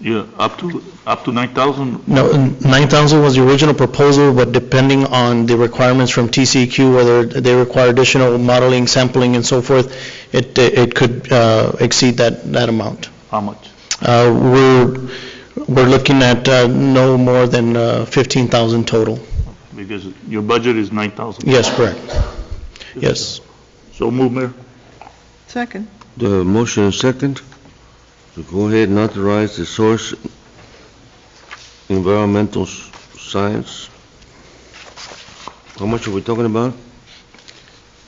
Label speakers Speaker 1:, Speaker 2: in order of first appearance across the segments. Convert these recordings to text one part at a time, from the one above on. Speaker 1: Yeah, up to, up to 9,000,
Speaker 2: No, 9,000 was the original proposal, but depending on the requirements from TCEQ, whether they require additional modeling, sampling, and so forth, it, it could uh, exceed that, that amount.
Speaker 1: how much?
Speaker 2: Uh, We're, we're looking at uh, no more than uh, 15,000 total.
Speaker 1: Because your budget is 9,000.
Speaker 2: Yes, correct. Yes.
Speaker 1: So move, Mayor.
Speaker 3: Second.
Speaker 4: The motion is second to go ahead and authorize the source environmental s- science. How much are we talking about?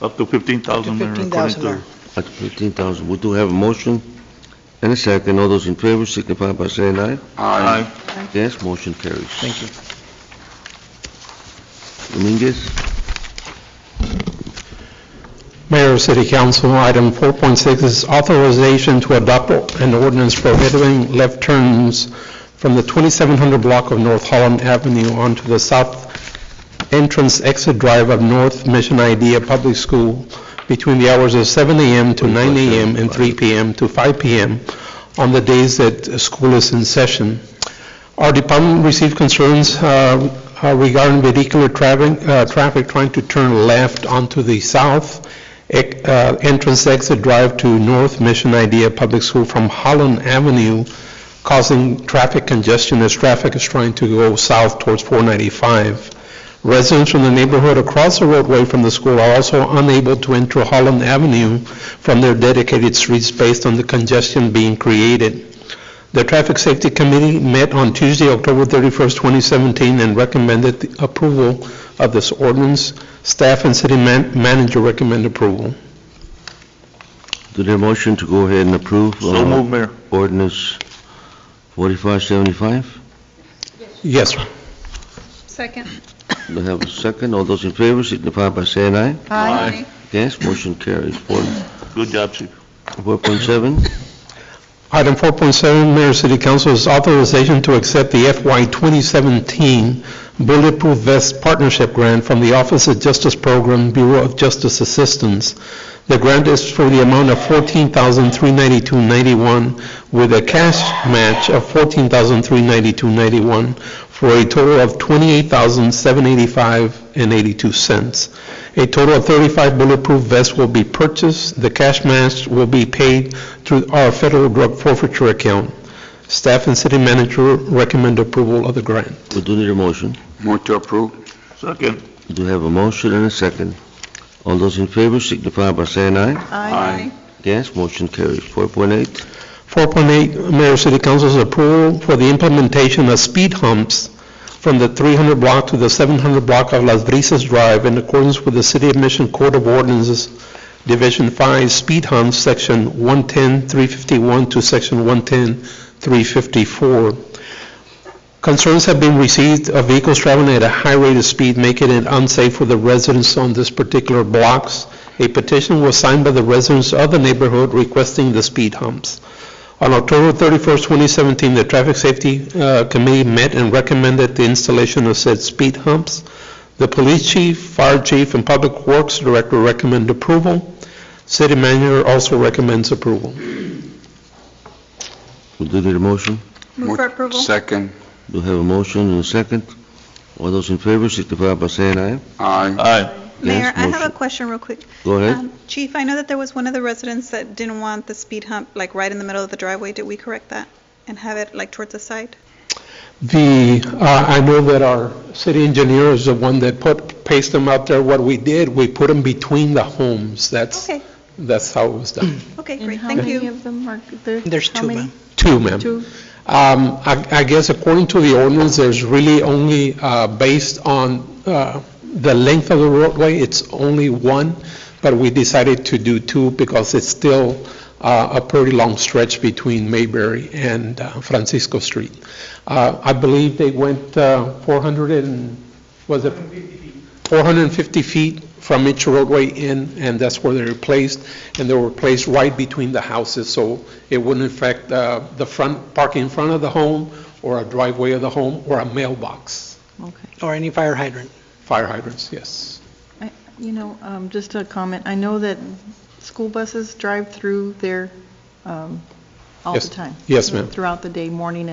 Speaker 1: Up to 15,000, Mayor. according
Speaker 3: 15,000,
Speaker 1: to-
Speaker 3: Mayor.
Speaker 4: At 15,000. We do have a motion and a second. All those in favor signify by saying aye.
Speaker 1: Aye.
Speaker 4: Yes, motion carries.
Speaker 2: Thank you.
Speaker 4: Dominguez?
Speaker 5: Mayor, City Council, item 4.6 is authorization to adopt an ordinance prohibiting left turns from the 2700 block of North Holland Avenue onto the south entrance exit drive of North Mission Idea Public School between the hours of 7 a.m. to 9 a.m. and 3 p.m. to 5 p.m. on the days that school is in session. Our department received concerns uh, uh, regarding vehicular traffic, uh, traffic trying to turn left onto the south ec- uh, entrance exit drive to North Mission Idea Public School from Holland Avenue, causing traffic congestion as traffic is trying to go south towards 495. Residents from the neighborhood across the roadway from the school are also unable to enter Holland Avenue from their dedicated streets based on the congestion being created. The Traffic Safety Committee met on Tuesday, October 31st, 2017, and recommended the approval of this ordinance. Staff and city man- manager recommend approval.
Speaker 4: Do the motion to go ahead and approve?
Speaker 1: So
Speaker 4: uh,
Speaker 1: move, Mayor.
Speaker 4: Ordinance 4575?
Speaker 5: Yes, sir.
Speaker 6: Second.
Speaker 4: Do I have a second? All those in favor signify by saying aye.
Speaker 1: Aye.
Speaker 4: Yes, motion carries. Four-
Speaker 1: Good job, Chief.
Speaker 4: 4.7?
Speaker 5: Item 4.7, Mayor City Council is authorization to accept the FY 2017 Bulletproof Vest Partnership Grant from the Office of Justice Program Bureau of Justice Assistance. The grant is for the amount of $14,392.91 with a cash match of $14,392.91 for a total of $28,785.82. A total of 35 bulletproof vests will be purchased. The cash match will be paid through our federal drug forfeiture account. Staff and city manager recommend approval of the grant.
Speaker 4: We do need a motion.
Speaker 7: Move to approve.
Speaker 1: Second.
Speaker 4: Do have a motion and a second. All those in favor signify by saying aye.
Speaker 7: Aye.
Speaker 4: Yes, motion carries. 4.8,
Speaker 5: 4.8, Mayor City Council's approval for the implementation of speed humps from the 300 block to the 700 block of Las Brisas Drive in accordance with the City of Mission Code of Ordinances, Division 5, speed humps, Section 110-351 to Section 110-354. Concerns have been received of vehicles traveling at a high rate of speed, making it unsafe for the residents on this particular blocks. A petition was signed by the residents of the neighborhood requesting the speed humps. On October 31st, 2017, the Traffic Safety uh, Committee met and recommended the installation of said speed humps. The police chief, fire chief, and public works director recommend approval. City manager also recommends approval.
Speaker 4: we do need a motion.
Speaker 6: Move for approval.
Speaker 7: Second.
Speaker 4: Do have a motion and a second. All those in favor signify by saying aye.
Speaker 7: Aye.
Speaker 1: Aye.
Speaker 6: Mayor,
Speaker 4: Yes,
Speaker 6: I have
Speaker 4: motion.
Speaker 6: a question real quick.
Speaker 4: Go ahead.
Speaker 6: Um, Chief, I know that there was one of the residents that didn't want the speed hump, like, right in the middle of the driveway. Did we correct that? And have it, like, towards the side?
Speaker 5: The, uh, I know that our city engineer is the one that put, pasted them out there. What we did, we put them between the homes. That's,
Speaker 6: Okay,
Speaker 5: that's how it was done.
Speaker 6: okay, great, thank
Speaker 8: And how many
Speaker 6: you.
Speaker 8: of them are there?
Speaker 3: There's
Speaker 8: How
Speaker 3: two,
Speaker 8: many?
Speaker 3: ma'am.
Speaker 5: Two, ma'am.
Speaker 8: Two.
Speaker 5: Um, I I guess according to the ordinance, there's really only, uh, based on uh, the length of the roadway, it's only one, but we decided to do two because it's still uh, a pretty long stretch between Mayberry and uh, Francisco Street. Uh, I believe they went uh, 400 and, was it? 450 feet from each roadway in, and that's where they were placed, and they were placed right between the houses, so it wouldn't affect uh, the front, parking in front of the home, or a driveway of the home, or a mailbox,
Speaker 8: Okay.
Speaker 3: Or any fire hydrant.
Speaker 5: fire hydrants, yes.
Speaker 8: I- You know, um, just a comment, I know that school buses drive through there um, all the
Speaker 5: Yes.
Speaker 8: time,
Speaker 5: Yes, ma'am.
Speaker 8: throughout the day, morning